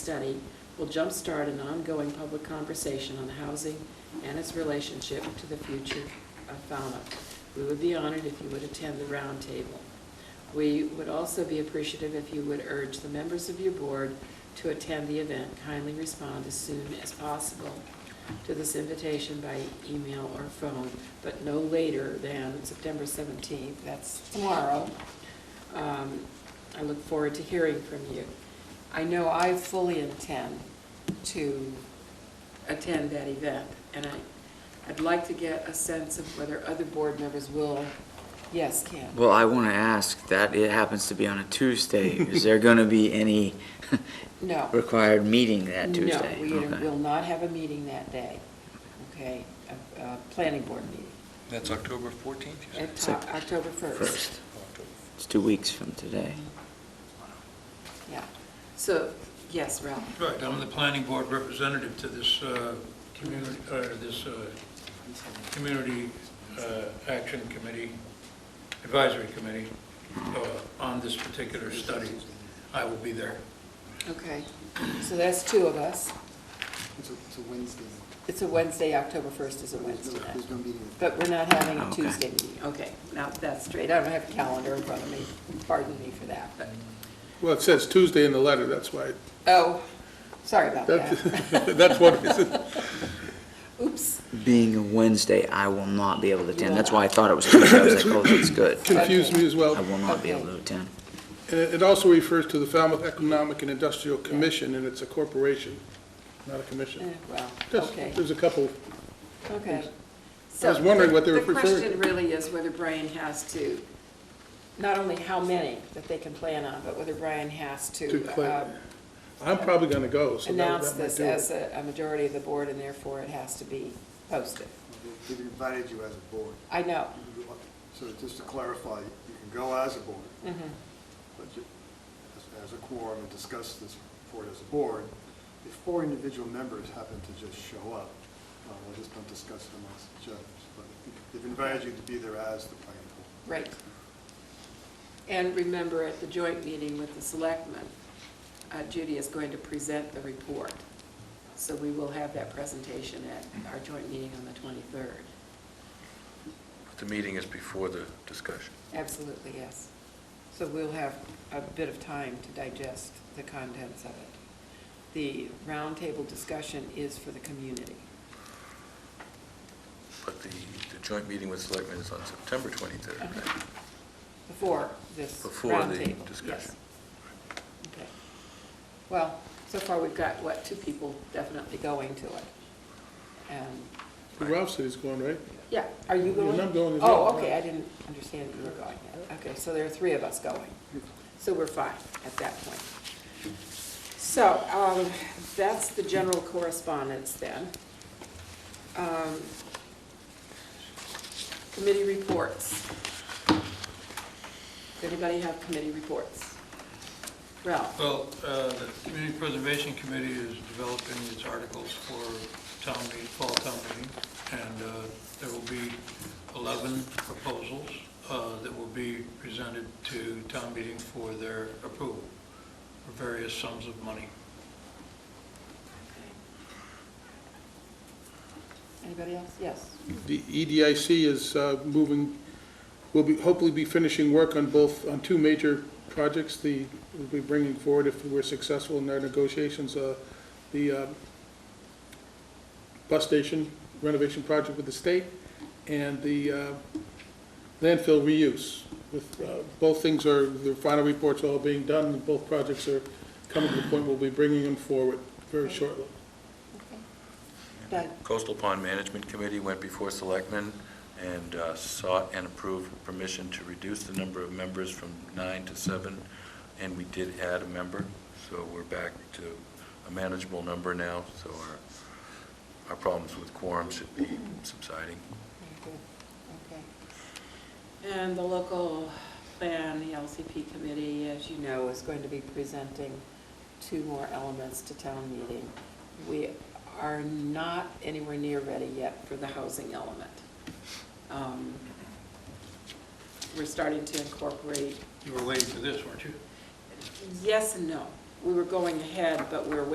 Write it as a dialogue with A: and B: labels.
A: study will jumpstart an ongoing public conversation on housing and its relationship to the future of Falmouth. We would be honored if you would attend the roundtable. We would also be appreciative if you would urge the members of your board to attend the event. Kindly respond as soon as possible to this invitation by email or phone, but no later than September 17th, that's tomorrow. Um, I look forward to hearing from you. I know I fully intend to attend that event, and I, I'd like to get a sense of whether other board members will. Yes, Ken?
B: Well, I want to ask that it happens to be on a Tuesday. Is there going to be any
A: No.
B: required meeting that Tuesday?
A: No, we
B: Okay.
A: will not have a meeting that day, okay? A, a planning board meeting,
C: That's October 14th, you said?
A: at
B: So-
A: to- October 1st.
B: First.
C: October.
B: It's two weeks from today.
A: Yeah, so, yes, Ralph?
D: Right, I'm the planning board representative to this uh, community, uh, this uh, Community uh, Action Committee, Advisory Committee, uh, on this particular study. I will be there.
A: Okay, so that's two of us.
E: It's a, it's a Wednesday.
A: It's a Wednesday, October 1st is a
E: There's
A: Wednesday
E: no-
A: night.
E: There's no meeting.
A: But we're not having a
B: Okay.
A: Tuesday meeting, okay, now that's straight, I don't have a calendar in front of me, pardon me for that, but,
F: Well, it says Tuesday in the letter, that's why,
A: oh, sorry about
F: that's,
A: that,
F: that's what it is.
A: oops.
B: Being a Wednesday, I will not be able to attend. That's
A: will not.
B: why I thought it was Tuesday. I was like, oh, that's good.
F: confused me as well.
B: I will not be able
A: Okay.
B: to attend.
F: And It it also refers to the Falmouth Economic and Industrial Commission, and it's a corporation, not a
A: Eh,
F: commission.
A: Well,
F: Just-
A: okay.
F: There's a couple,
A: Okay.
F: I was wondering what they were
A: The
F: preferring.
A: question really is whether Brian has to, not only how many that they can plan on, but whether Brian has
F: To
A: to
F: plan.
A: uh,
F: I'm probably going to go, so that
A: announce
F: that might
A: this
F: do
A: as
F: it.
A: a a majority of the board, and therefore it has to be posted.
E: They've invited you as a board.
A: I know.
E: So just to clarify, you can go as a board,
A: Mhm.
E: but you, as- as a quorum and discuss this report as a board. If four individual members happen to just show up, uh, we'll just don't discuss it amongst each other. But they've invited you to be there as the planning board.
A: Right. And remember, at the joint meeting with the selectmen, uh, Judy is going to present the report. So we will have that presentation at our joint meeting on the 23rd.
C: The meeting is before the discussion.
A: Absolutely, yes. So we'll have a bit of time to digest the contents of it. The roundtable discussion is for the community.
G: But the, the joint meeting with selectmen is on September 23rd,
A: Okay.
G: right?
A: Before this
G: Before the
A: roundtable, yes.
G: discussion.
A: Okay. Well, so far we've got, what, two people definitely going to it. And,
F: Ralph said he's going, right?
A: yeah, are you going?
F: I'm going as well.
A: Oh, okay, I didn't understand you were going yet. Okay, so there are three of us going. So we're fine at that point. So um, that's the general correspondence then. Um, Committee reports. Does anybody have committee reports? Ralph?
D: Well, uh, the Community Preservation Committee is developing its articles for town meeting, fall town meeting, and uh, there will be 11 proposals uh, that will be presented to town meeting for their approval for various sums of money.
A: Anybody else? Yes.
F: The E EDIC is uh, moving, will be, hopefully be finishing work on both, on two major projects. The, we'll be bringing forward, if we're successful in our negotiations, uh, the uh, bus station renovation project with the state and the uh, landfill reuse. With, uh, both things are, the final reports all being done, and both projects are coming to the point we'll be bringing them forward very shortly.
A: Doug?
G: Coastal Pond Management Committee went before selectmen and uh, sought and approved permission to reduce the number of members from nine to seven, and we did add a member, so we're back to a manageable number now, so our, our problems with quorum should be subsiding.
A: Very good. Okay. And the local plan, the LCP committee, as you know, is going to be presenting two more elements to town meeting. We are not anywhere near ready yet for the housing element. Um, We're starting to incorporate,
D: You were waiting for this, weren't you?
A: yes and no. We were going ahead, but we're